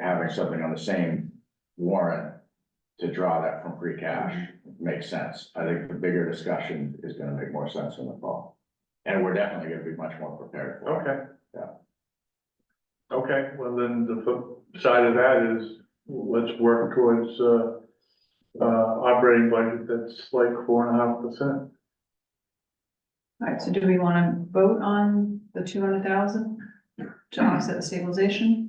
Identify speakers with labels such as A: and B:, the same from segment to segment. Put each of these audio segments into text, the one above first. A: transferring something on the same warrant to draw that from free cash makes sense. I think the bigger discussion is gonna make more sense in the fall. And we're definitely gonna be much more prepared for it.
B: Okay.
A: Yeah.
B: Okay, well, then the flip side of that is, let's work towards, uh, uh, operating budget that's like four and a half percent.
C: Alright, so do we wanna vote on the two hundred thousand to offset the stabilization?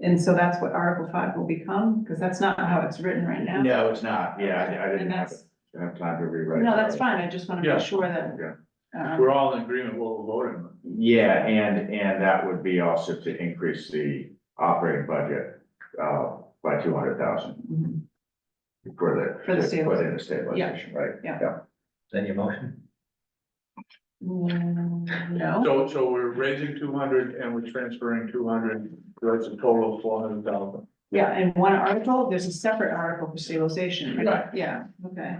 C: And so that's what Article five will become, because that's not how it's written right now.
A: No, it's not. Yeah, I- I didn't
C: And
A: have,
C: that's,
A: didn't have time to rewrite.
C: no,
A: that.
C: that's fine, I just wanna
B: Yeah.
C: make sure that.
A: Yeah.
C: um,
B: We're all in agreement, with what we're voting. on.
A: Yeah, and, and that would be also to increase the operating budget, uh, by two hundred thousand
C: mhm.
A: for the.
C: For the
A: For the stabilization, right?
D: Then your motion?
C: Mm, No,
B: So, so we're raising two hundred and we're transferring two hundred, that's a total of four hundred thousand.
C: yeah, and one article, there's a separate article for stabilization, right?
A: Right.
C: Yeah, okay.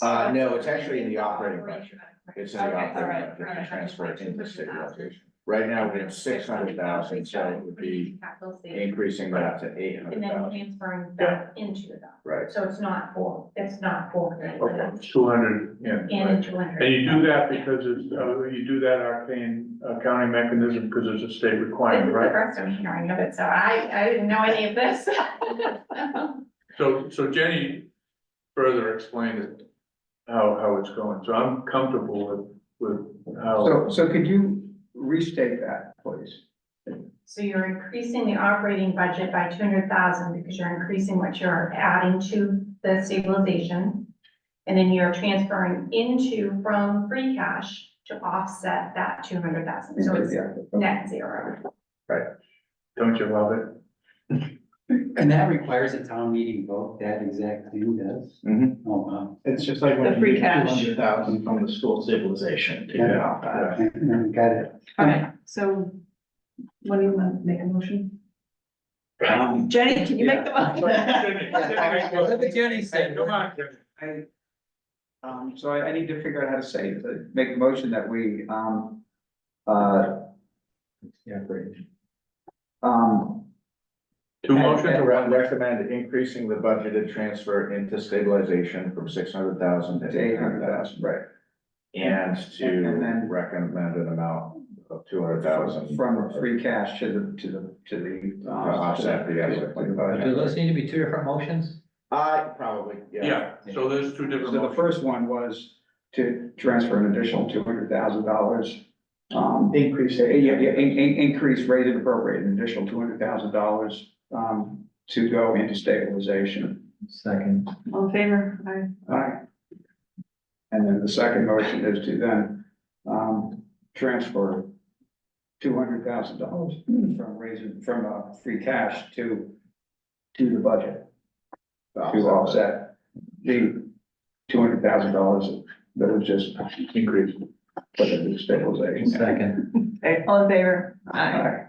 A: Uh, no, it's actually in the operating budget. It's in the
C: Okay, all
A: operating
C: right,
A: budget,
C: all right.
A: uh, transfer it into stabilization. Right now, we have six hundred thousand, so it would be
E: Capital savings,
A: increasing that to eight
E: and
A: hundred
E: then
A: thousand,
E: transferring that into that,
A: right?
E: so it's not four, it's not four million,
B: Okay, two hundred, yeah.
E: and
B: right.
E: into two hundred.
B: And you do that because it's, uh, you do that arcane accounting mechanism because it's a state
E: This is
B: requirement,
E: the
B: right?
E: first I'm hearing of it, so I, I didn't know any of this.
B: So, so Jenny further explained it, how, how it's going, so I'm comfortable with, with
F: So,
B: how.
F: so could you restate that, please?
E: So you're increasing the operating budget by two hundred thousand because you're increasing what you're adding to the stabilization. And then you're transferring into from free cash to offset that two hundred thousand, so it's
F: Yeah.
E: net zero.
B: Don't you love it?
G: And that requires a town meeting vote, that exact thing does?
A: Mhm.
B: Mm-hmm.
G: Oh, wow.
H: It's just like when
C: The
H: you
C: free
H: get two
C: cash.
H: hundred thousand from the school stabilization. to
G: Yeah.
H: get off that.
G: I- I Got it.
C: Alright, so what do you want to make a motion?
G: Um,
C: Jenny, can you make the motion?
F: Jenny said.
B: Come on,
F: I, um, so I, I need to figure out how to say, it, to make a motion that we, um, uh,
D: Yeah, great.
F: um,
B: two
A: Motion to
B: motions,
A: re- recommend increasing the budgeted transfer into stabilization from six hundred thousand to eight hundred thousand.
F: right.
A: And
F: And
A: to
F: then-
A: recommend an amount of two hundred thousand.
F: From free cash to the, to the, to the.
A: To
F: um,
A: offset the other
D: Do
A: 25.
D: those need to be two different motions?
A: Uh, probably, yeah.
B: yeah, so there's two different
F: So the
B: motions,
F: first one was to transfer an additional two hundred thousand dollars. Um,
H: Increase
F: Yeah,
H: it.
F: yeah, yeah, in, in, increase rate and appropriate, an additional two hundred thousand dollars, um, to go into stabilization.
D: Second.
C: All in favor? Aye.
F: Alright. And then the second motion is to then, um, transfer two hundred thousand dollars from raising, from, uh, free cash to, to the budget, to offset the two hundred thousand dollars that was just increased for the stabilization.
D: Second.
C: Okay, all in favor? Aye.
F: Alright.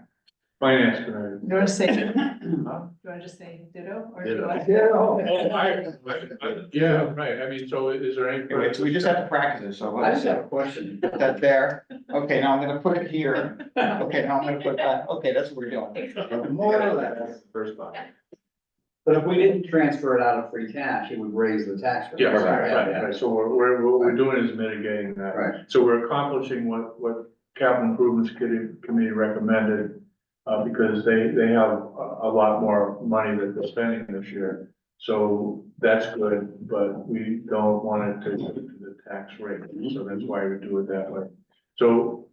B: finance committee.
C: You wanna say, do you wanna just say ditto, or do you want?
B: Oh, I, I- I- yeah, right, I mean, so is there any?
F: Anyway, so we just have to practice it, so
D: I
F: let's
D: just have a question.
F: put that there. Okay, now I'm gonna put it here. Okay, now I'm gonna put that, okay, that's what we're doing.
D: More or less.
B: First one.
D: But if we didn't transfer it out of free cash, it would raise the tax rate.
B: Yeah,
A: Right,
B: right, right, right, so we're, we're, what we're doing is mitigating that.
D: Right.
B: So we're accomplishing what, what capital improvements committee, committee recommended, uh, because they, they have a, a lot more money that they're spending this year. So that's good, but we don't want it to go to the tax rate, so that's why we do it that way. So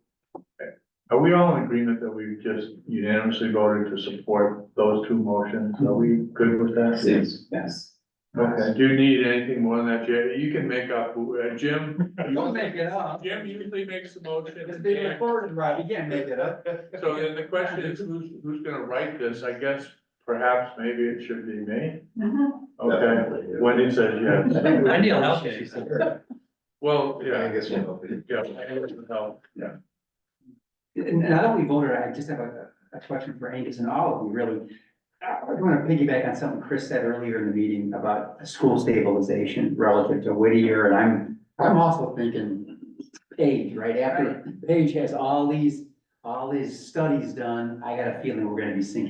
B: are we all in agreement that we just unanimously voted to support those two motions? Are we good with that?
D: Yes, yes.
B: Okay, do you need anything more than that, Jim? You can make up, uh, Jim.
D: Don't make it up.
B: Jim usually makes the motion.
D: It's being recorded, Rob, you can't make it up.
B: So then the question is, who's, who's gonna write this? I guess perhaps maybe it should be me.
D: Mm-hmm.
B: Okay, Wendy says yes.
D: Wendy will help you, she said.
B: Well,
H: I
B: yeah,
H: guess we'll.
B: yeah. I need some help.
G: And and I don't we voted, I just have a, a question for Angus and all of you, really. I want to piggyback on something Chris said earlier in the meeting about school stabilization relative to Whittier, and I'm, I'm also thinking Page, right after, Page has all these, all these studies done, I got a feeling we're gonna be sinking